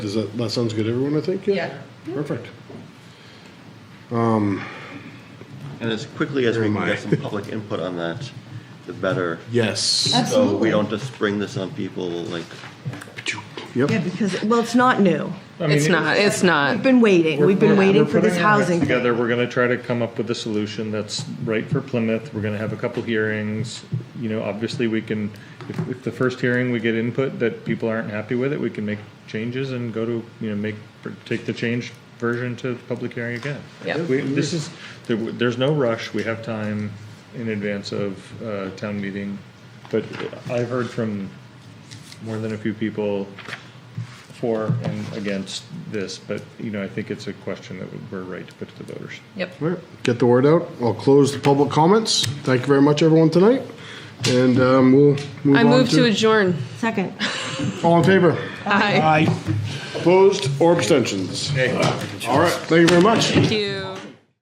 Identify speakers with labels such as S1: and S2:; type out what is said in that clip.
S1: Does that, that sounds good, to everyone, I think?
S2: Yeah.
S1: Perfect.
S3: And as quickly as we
S1: Never
S3: can
S1: mind.
S3: get some public input on that, the better.
S1: Yes.
S3: So we
S2: Absolutely.
S3: don't just spring this on people like,
S1: Yep.
S4: Yeah, because, well, it's not new.
S5: It's not, it's not.
S4: We've been waiting. We've been
S5: We're-
S4: waiting
S5: we're
S4: for this
S5: putting our heads
S4: housing. thing.
S5: Together, we're gonna try to come up with a solution that's right for Plymouth. We're gonna have a couple hearings. You know, obviously, we can, if, if the first hearing we get input that people aren't happy with it, we can make changes and go to, you know, make, take the changed version to public hearing again.
S2: Yeah.
S5: We, this is, there, there's no rush. We have time in advance of, uh, town meeting. But I've heard from more than a few people for and against this, but, you know, I think it's a question that we're right to put to the voters.
S2: Yep.
S1: All right, get the word out. I'll close the public comments. Thank you very much, everyone, tonight. And um, we'll move
S6: I
S1: on
S6: move to adjourn.
S4: Second.
S1: All in favor?
S6: Aye.
S1: Opposed or abstentions? All right, thank you very much.
S6: Thank you.